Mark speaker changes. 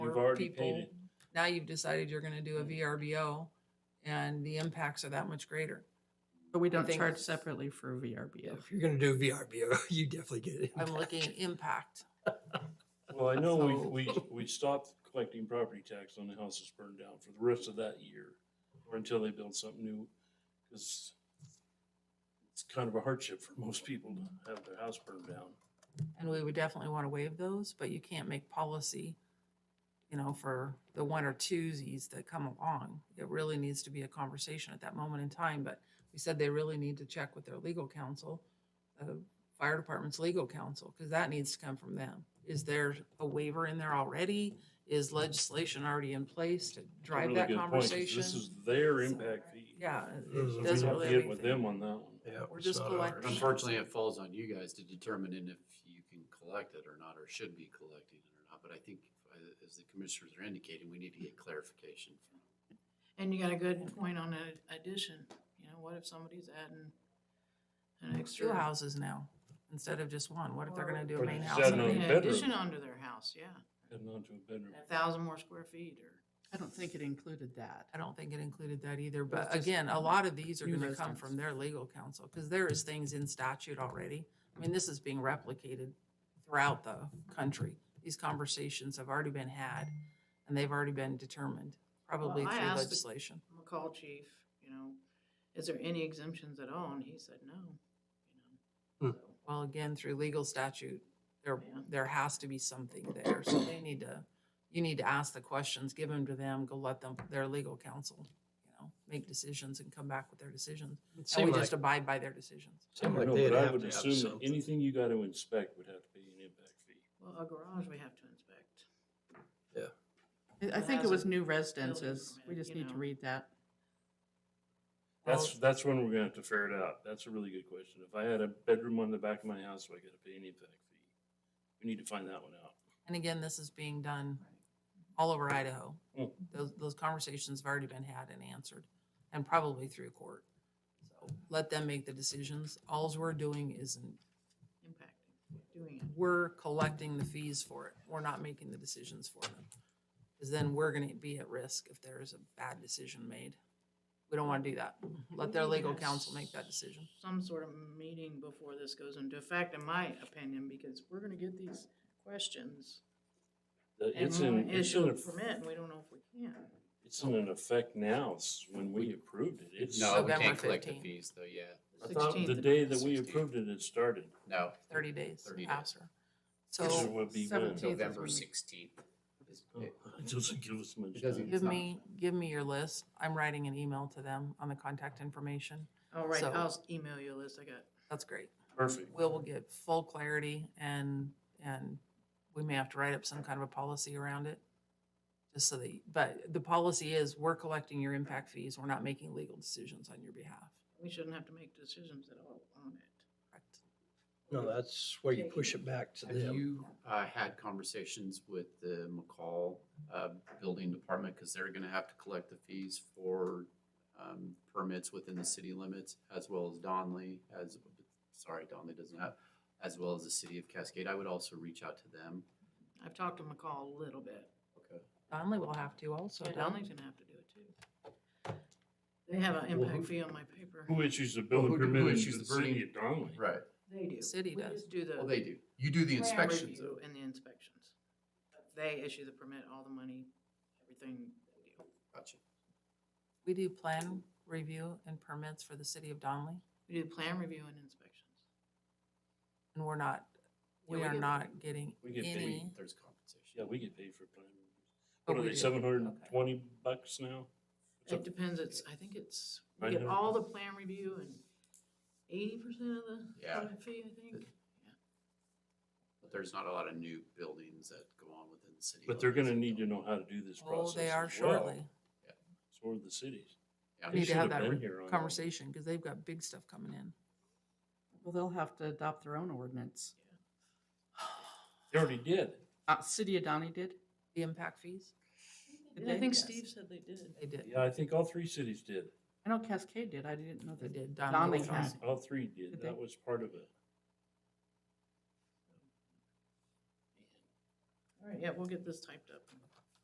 Speaker 1: You've
Speaker 2: for
Speaker 1: already Mm. paid
Speaker 2: people.
Speaker 1: it.
Speaker 2: Now you've decided you're gonna do a VRBO and the impacts are that much greater.
Speaker 3: But we don't
Speaker 2: think-
Speaker 3: charge separately for VRBO.
Speaker 4: If you're gonna do VRBO, you definitely get it.
Speaker 2: I'm looking at impact.
Speaker 1: Well, I know
Speaker 2: So-
Speaker 1: we, we, we stopped collecting property tax on the houses burned down for the rest of that year or until they build something new, because it's kind of a hardship for most people to have their house burned down.
Speaker 2: And we would definitely wanna waive those, but you can't make policy, you know, for the one or twosies that come along. It really needs to be a conversation at that moment in time, but we said they really need to check with their legal counsel, uh, fire department's legal counsel, cause that needs to come from them. Is there a waiver in there already? Is legislation already in place to
Speaker 1: It's a
Speaker 2: drive
Speaker 1: really
Speaker 2: that
Speaker 1: good point, 'cause
Speaker 2: conversation?
Speaker 1: This is their
Speaker 2: So,
Speaker 1: impact fee.
Speaker 2: Yeah,
Speaker 4: Mhm.
Speaker 2: it
Speaker 1: We
Speaker 4: We
Speaker 1: have
Speaker 2: doesn't
Speaker 4: have
Speaker 1: to
Speaker 2: really
Speaker 1: get
Speaker 2: have
Speaker 1: with
Speaker 2: anything.
Speaker 1: them on that one.
Speaker 4: Yeah,
Speaker 2: We're
Speaker 4: it's
Speaker 2: just
Speaker 4: not ours.
Speaker 2: collecting.
Speaker 5: Unfortunately, it falls on you guys to determine if you can collect it or not, or should be collecting it or not. But I think, uh, as the commissioners are indicating, we need to get clarification.
Speaker 6: And you got a good point on the addition, you know, what if somebody's adding an extra?
Speaker 2: Two houses now, instead of just one. What if they're gonna do a
Speaker 1: Or
Speaker 2: main
Speaker 1: just
Speaker 2: house?
Speaker 1: add
Speaker 2: and a
Speaker 1: another
Speaker 2: main-
Speaker 6: An
Speaker 1: bedroom.
Speaker 6: addition onto their house, yeah,
Speaker 1: Heading on to a bedroom.
Speaker 6: a thousand more square feet or,
Speaker 3: I don't think it included that.
Speaker 2: I don't think it included that either,
Speaker 3: But it's
Speaker 2: but
Speaker 3: just
Speaker 2: again, a lot of these are
Speaker 3: new
Speaker 2: gonna come from
Speaker 3: residents.
Speaker 2: their legal counsel, because there is things in statute already. I mean, this is being replicated throughout the country. These conversations have already been had, and they've already been determined, probably
Speaker 6: I
Speaker 2: through
Speaker 6: asked the-
Speaker 2: legislation.
Speaker 6: McCall chief, you know, is there any exemptions at all? And he said, no, you
Speaker 1: Hmm.
Speaker 6: know. so,
Speaker 2: Well, again, through legal statute, there,
Speaker 6: Yeah.
Speaker 2: there has to be something there, so they need to, you need to ask the questions, give them to them, go let them, their legal counsel, you know, make decisions and come back with their decisions.
Speaker 4: It
Speaker 2: And we
Speaker 4: seemed
Speaker 2: just
Speaker 4: like,
Speaker 2: abide by their decisions.
Speaker 4: seemed
Speaker 1: I
Speaker 4: like
Speaker 1: know,
Speaker 4: they'd
Speaker 1: but I
Speaker 4: have
Speaker 1: would
Speaker 4: to have
Speaker 1: assume that
Speaker 4: something.
Speaker 1: anything you got to inspect would have to be an impact fee.
Speaker 6: Well, a garage we have to inspect.
Speaker 3: I- I
Speaker 6: It
Speaker 3: think it
Speaker 6: has a
Speaker 3: was new
Speaker 6: building
Speaker 3: residences. We
Speaker 6: permit,
Speaker 3: just
Speaker 6: you
Speaker 3: need to
Speaker 6: know.
Speaker 3: read that.
Speaker 2: Well,
Speaker 1: That's, that's when we're gonna have to figure it out. That's a really good question. If I had a bedroom on the back of my house, do I gotta pay an impact fee? We need to find that one out.
Speaker 2: And again, this is being done all over Idaho.
Speaker 1: Mm.
Speaker 2: Those, those conversations have already been had and answered, and probably through court. So Let them make the decisions. Alls we're doing is,
Speaker 6: Impacting, doing it.
Speaker 2: we're collecting the fees for it. We're not making the decisions for them. Because then we're gonna be at risk if there is a bad decision made. We don't wanna do that. Let their
Speaker 6: We need to
Speaker 2: legal
Speaker 6: have
Speaker 2: counsel make that decision.
Speaker 6: Some sort of meeting before this goes into effect, in my opinion, because we're gonna get these questions.
Speaker 1: The-
Speaker 6: And
Speaker 1: It's
Speaker 6: we're
Speaker 1: in,
Speaker 6: gonna
Speaker 1: it's
Speaker 6: issue
Speaker 1: in,
Speaker 6: a
Speaker 1: eff-
Speaker 6: permit, and we don't know if we can.
Speaker 1: it's in an effect now, It's when we approved it. It's,
Speaker 5: No,
Speaker 1: I
Speaker 5: we
Speaker 2: November
Speaker 5: can't collect the
Speaker 2: 15.
Speaker 5: fees though, yeah.
Speaker 1: thought the
Speaker 6: 16th.
Speaker 1: day that we
Speaker 5: 16th.
Speaker 1: approved it, it started.
Speaker 5: No.
Speaker 2: Thirty days
Speaker 5: 30 days.
Speaker 2: after.
Speaker 1: Which
Speaker 2: So
Speaker 1: would be when.
Speaker 3: 17th.
Speaker 5: November
Speaker 3: when we-
Speaker 5: sixteenth.
Speaker 1: Oh, It doesn't give us much
Speaker 5: It doesn't-
Speaker 1: time.
Speaker 2: give
Speaker 5: not-
Speaker 2: me, give me your list. I'm writing an email to them on the contact information.
Speaker 6: All Oh, right,
Speaker 2: So-
Speaker 6: I'll s- email you a list I got.
Speaker 2: That's great.
Speaker 1: Perfect.
Speaker 2: Will will get full clarity and, and we may have to write up some kind of a policy around it. Just so that, you- but the policy is we're collecting your impact fees. We're not making legal decisions on your behalf.
Speaker 6: We shouldn't have to make decisions at all on it.
Speaker 2: Correct.
Speaker 4: no, that's where you push it back to
Speaker 5: Have
Speaker 4: them.
Speaker 5: you, uh, had conversations with the McCall, uh, Building Department? Cause they're gonna have to collect the fees for, um, permits within the city limits as well as Donley, as, sorry, Donley doesn't have, as well as the city of Cascade. I would also reach out to them.
Speaker 6: I've talked to McCall a little bit.
Speaker 5: Okay.
Speaker 2: Donley will have to also.
Speaker 6: Yeah,
Speaker 2: don't
Speaker 6: Donley's gonna have to do it too. They have an impact
Speaker 1: who-
Speaker 6: fee on my paper.
Speaker 1: Who issues the
Speaker 5: Well,
Speaker 1: building
Speaker 5: who do-
Speaker 1: permit
Speaker 5: who
Speaker 1: in the
Speaker 5: issues the
Speaker 1: city
Speaker 5: permit?
Speaker 1: of Donley?
Speaker 5: Right.
Speaker 6: They do.
Speaker 2: City
Speaker 6: We
Speaker 2: does.
Speaker 6: just do the.
Speaker 5: Well, they do. You do the
Speaker 6: plan
Speaker 5: inspections
Speaker 6: review
Speaker 5: though.
Speaker 6: And the inspections. They issue the permit, all the money, everything. they do.
Speaker 5: Gotcha.
Speaker 2: We do plan review and permits for the city of Donley
Speaker 6: We do plan review and inspections.
Speaker 2: and we're not,
Speaker 6: Yeah,
Speaker 2: we
Speaker 6: we
Speaker 2: are
Speaker 6: get-
Speaker 2: not getting
Speaker 1: We get paid.
Speaker 2: any.
Speaker 5: There's compensation.
Speaker 1: Yeah, we get paid for planning.
Speaker 2: Oh,
Speaker 1: What are
Speaker 2: we
Speaker 1: they,
Speaker 2: do.
Speaker 1: seven hundred and twenty bucks now?
Speaker 6: It depends, it's, I think it's,
Speaker 1: I
Speaker 6: we get
Speaker 1: know.
Speaker 6: all the plan review and eighty percent of the
Speaker 5: Yeah.
Speaker 6: permit fee, I think.
Speaker 5: But there's not a lot of new buildings that go on within the city.
Speaker 1: But they're
Speaker 5: limits.
Speaker 1: gonna need to know how to do this
Speaker 2: Oh,
Speaker 1: process.
Speaker 2: they are
Speaker 1: as well.
Speaker 2: shortly.
Speaker 1: So are the cities.
Speaker 5: Yeah.
Speaker 1: They
Speaker 2: Need to
Speaker 1: should
Speaker 2: have
Speaker 1: have
Speaker 2: that
Speaker 1: been
Speaker 2: re-
Speaker 1: here on that.
Speaker 2: conversation because they've got big stuff coming in.
Speaker 3: Well, they'll have to adopt their own ordinance.
Speaker 1: They already did.
Speaker 3: Uh, City of Donny did.
Speaker 2: The impact fees,
Speaker 3: Did
Speaker 6: And I
Speaker 3: they?
Speaker 6: think
Speaker 3: Yes.
Speaker 6: Steve said they did.
Speaker 2: they did.
Speaker 1: Yeah, I think all three cities did.
Speaker 3: I know Cascade did. I didn't know
Speaker 2: They
Speaker 3: they did.
Speaker 2: did.
Speaker 3: Donley
Speaker 2: Donley
Speaker 3: had.
Speaker 2: County.
Speaker 1: All three did.
Speaker 3: Did they?
Speaker 1: That was part of it.
Speaker 6: All right, yeah, we'll get this typed up. and